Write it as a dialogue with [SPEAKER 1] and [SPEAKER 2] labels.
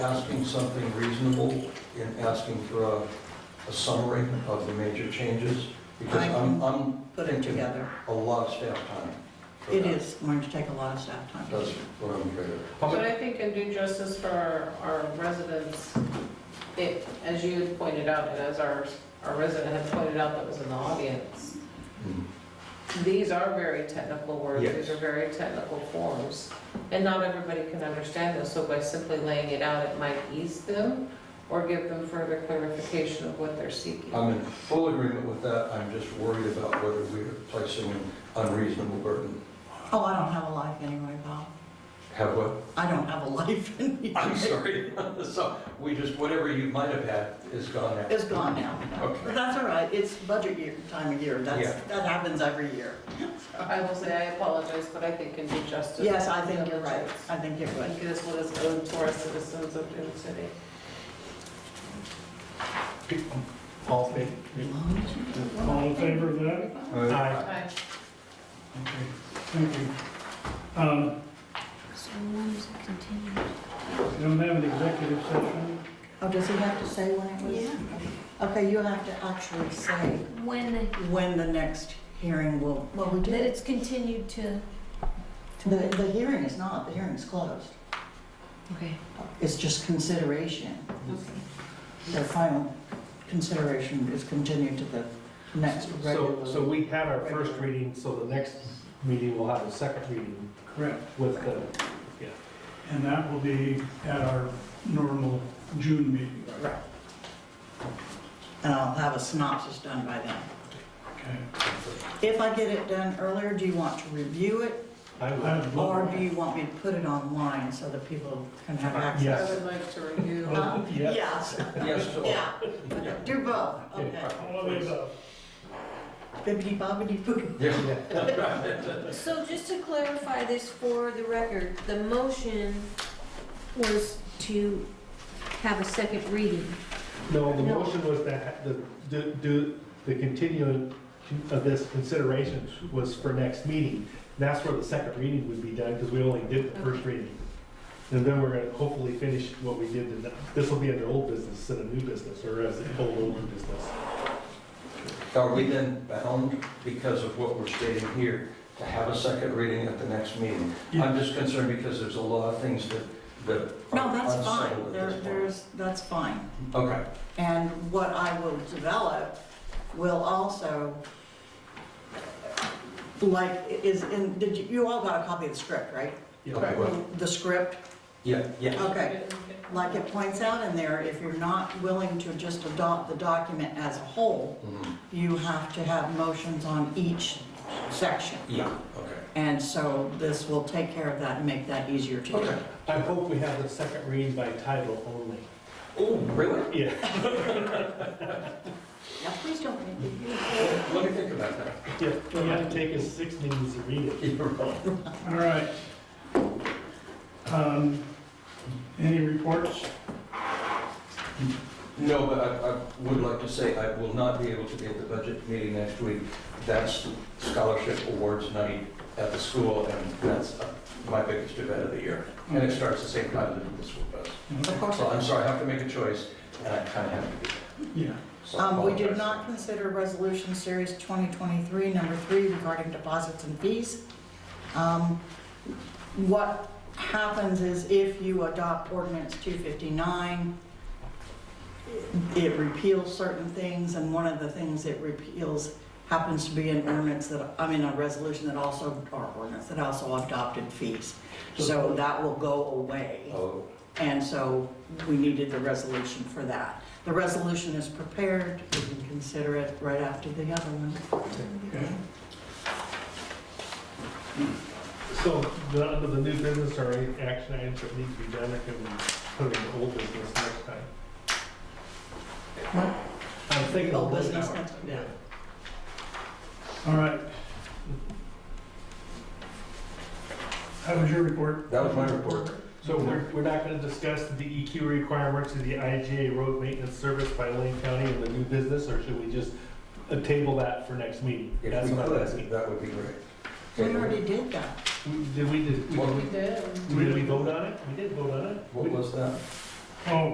[SPEAKER 1] asking something reasonable in asking for a, a summary of the major changes? Because
[SPEAKER 2] I
[SPEAKER 1] I'm, I'm
[SPEAKER 2] put it together.
[SPEAKER 1] a lot of staff time. for
[SPEAKER 2] It
[SPEAKER 1] that.
[SPEAKER 2] is going to take a lot of staff time.
[SPEAKER 1] That's what I'm afraid of.
[SPEAKER 3] But I think in due justice for our- our residents, it, as you had pointed out, and as our, our resident had pointed out that was in the audience,
[SPEAKER 1] Mm.
[SPEAKER 3] these are very technical words,
[SPEAKER 1] Yes.
[SPEAKER 3] these are very technical forms, and not everybody can understand this, so by simply laying it out, it might ease them or give them further clarification of what they're seeking.
[SPEAKER 1] I'm in full agreement with that, I'm just worried about whether we're placing an unreasonable burden.
[SPEAKER 2] Oh, I don't have a life anyway, Bob.
[SPEAKER 1] Have what?
[SPEAKER 2] I don't have a life
[SPEAKER 1] I'm
[SPEAKER 2] anyway.
[SPEAKER 1] sorry, so, we just, whatever you might have had is gone now.
[SPEAKER 2] It's gone now.
[SPEAKER 1] Okay.
[SPEAKER 2] But that's all right, it's budget year, time of year, that's,
[SPEAKER 1] Yeah.
[SPEAKER 2] that happens every year.
[SPEAKER 3] I will say, I apologize, but I think in due justice.
[SPEAKER 2] Yes, I think you're right, I think you're
[SPEAKER 3] I
[SPEAKER 2] right.
[SPEAKER 3] think it is what is owed to our citizens of Dune City.
[SPEAKER 4] All in favor?
[SPEAKER 5] All in favor of that?
[SPEAKER 1] Uh,
[SPEAKER 4] Aye.
[SPEAKER 3] Aye.
[SPEAKER 4] Okay, thank you. Um,
[SPEAKER 6] So when does it continue?
[SPEAKER 4] We don't have an executive session.
[SPEAKER 2] Oh, does he have to say when it was? Okay, you have to actually say
[SPEAKER 6] When they,
[SPEAKER 2] when the next hearing will, well, we
[SPEAKER 6] that
[SPEAKER 2] did.
[SPEAKER 6] it's continued to?
[SPEAKER 2] The, the hearing is not, the hearing's closed.
[SPEAKER 6] Okay.
[SPEAKER 2] It's just consideration. Their final consideration is continued to the next
[SPEAKER 7] So,
[SPEAKER 2] regular.
[SPEAKER 7] so we had our first reading, so the next meeting will have a second reading
[SPEAKER 4] Correct.
[SPEAKER 7] with the,
[SPEAKER 4] And that will be at our normal June meeting.
[SPEAKER 2] And I'll have a synopsis done by then.
[SPEAKER 4] Okay.
[SPEAKER 2] If I get it done earlier, do you want to review it?
[SPEAKER 7] I
[SPEAKER 4] I
[SPEAKER 7] would,
[SPEAKER 4] would
[SPEAKER 2] Or
[SPEAKER 4] love
[SPEAKER 2] do you want me to put it online so that people can have access?
[SPEAKER 3] I
[SPEAKER 7] yes.
[SPEAKER 3] would like to review.
[SPEAKER 7] Oh,
[SPEAKER 1] Oh,
[SPEAKER 2] Huh?
[SPEAKER 4] Yes.
[SPEAKER 1] Yes, so.
[SPEAKER 2] Yeah, do both, okay.
[SPEAKER 4] All of the above.
[SPEAKER 2] Bibbidi bobbidi boo.
[SPEAKER 1] Yeah.
[SPEAKER 6] So just to clarify this for the record, the motion was to have a second reading.
[SPEAKER 7] no, the
[SPEAKER 6] No.
[SPEAKER 7] motion was that, the, do- do, the continuing of this consideration was for next meeting. That's where the second reading would be done, because we only did the first reading. And then we're gonna hopefully finish what we did, tonight. this will be under old business and a new business, or as a whole new business.
[SPEAKER 1] Are we then bound, because of what we're stating here, to have a second reading at the next meeting? I'm just concerned because there's a lot of things that, that
[SPEAKER 2] No,
[SPEAKER 1] are
[SPEAKER 2] that's fine,
[SPEAKER 1] unsettled at
[SPEAKER 2] There-
[SPEAKER 1] this point.
[SPEAKER 2] there's, that's fine.
[SPEAKER 1] Okay,
[SPEAKER 2] And what I will develop will also, like, is, in did you, you all got a copy of the script, right?
[SPEAKER 1] Okay, well,
[SPEAKER 2] The script,
[SPEAKER 1] yeah, yeah,
[SPEAKER 2] okay. Like it points out in there, if you're not willing to just adopt the document as a whole,
[SPEAKER 1] Mhm.
[SPEAKER 2] you have to have motions on each section.
[SPEAKER 1] yeah, okay.
[SPEAKER 2] And so this will take care of that and make that easier to do.
[SPEAKER 1] Okay.
[SPEAKER 7] I hope we have the second reading by title only.
[SPEAKER 1] Oh, really?
[SPEAKER 7] Yeah.
[SPEAKER 2] Now, please don't make me do it.
[SPEAKER 1] Let me think about that.
[SPEAKER 7] Yeah, it might take us six meetings to read it.
[SPEAKER 1] You're right.
[SPEAKER 4] All right. Um, Any reports?
[SPEAKER 1] No, but I, I would like to say I will not be able to be at the budget meeting next week. That's the scholarship awards night at the school, and that's uh, my biggest event of the year. And it starts the same time that the school does.
[SPEAKER 2] Of course.
[SPEAKER 1] So I'm sorry, I have to make a choice, and I kind of have to do that.
[SPEAKER 4] Yeah.
[SPEAKER 1] So I
[SPEAKER 2] Um, we did
[SPEAKER 1] apologize.
[SPEAKER 2] not consider resolution series 2023, number three, regarding deposits and fees. Um, What happens is if you adopt ordinance 259, it repeals certain things, and one of the things it repeals happens to be an ordinance that, I mean, a resolution that also, or ordinance that also adopted fees. So that will go away.
[SPEAKER 1] Oh,
[SPEAKER 2] And so we needed the resolution for that. The resolution is prepared, we can consider it right after the other one.
[SPEAKER 4] Okay.
[SPEAKER 7] So none of the new business or any action items that need to be done, I can put in the old business next time.
[SPEAKER 2] What?
[SPEAKER 7] I'm thinking
[SPEAKER 2] Old
[SPEAKER 7] of those
[SPEAKER 2] business
[SPEAKER 7] hours.
[SPEAKER 2] next- yeah.
[SPEAKER 4] All right. That was your report.
[SPEAKER 1] that was my report.
[SPEAKER 7] So we're, we're not gonna discuss the EQ requirements of the IGA road maintenance service by Lane County and the new business, or should we just uh, table that for next meeting?
[SPEAKER 1] If
[SPEAKER 7] That's
[SPEAKER 1] we
[SPEAKER 7] what I'm
[SPEAKER 1] could,
[SPEAKER 7] asking.
[SPEAKER 1] that would be great.
[SPEAKER 2] We already did that.
[SPEAKER 7] We- Did we, did,
[SPEAKER 1] What-
[SPEAKER 7] we-
[SPEAKER 3] We did.
[SPEAKER 7] did we vote on it? We did vote on it?
[SPEAKER 1] What was that?
[SPEAKER 4] Oh,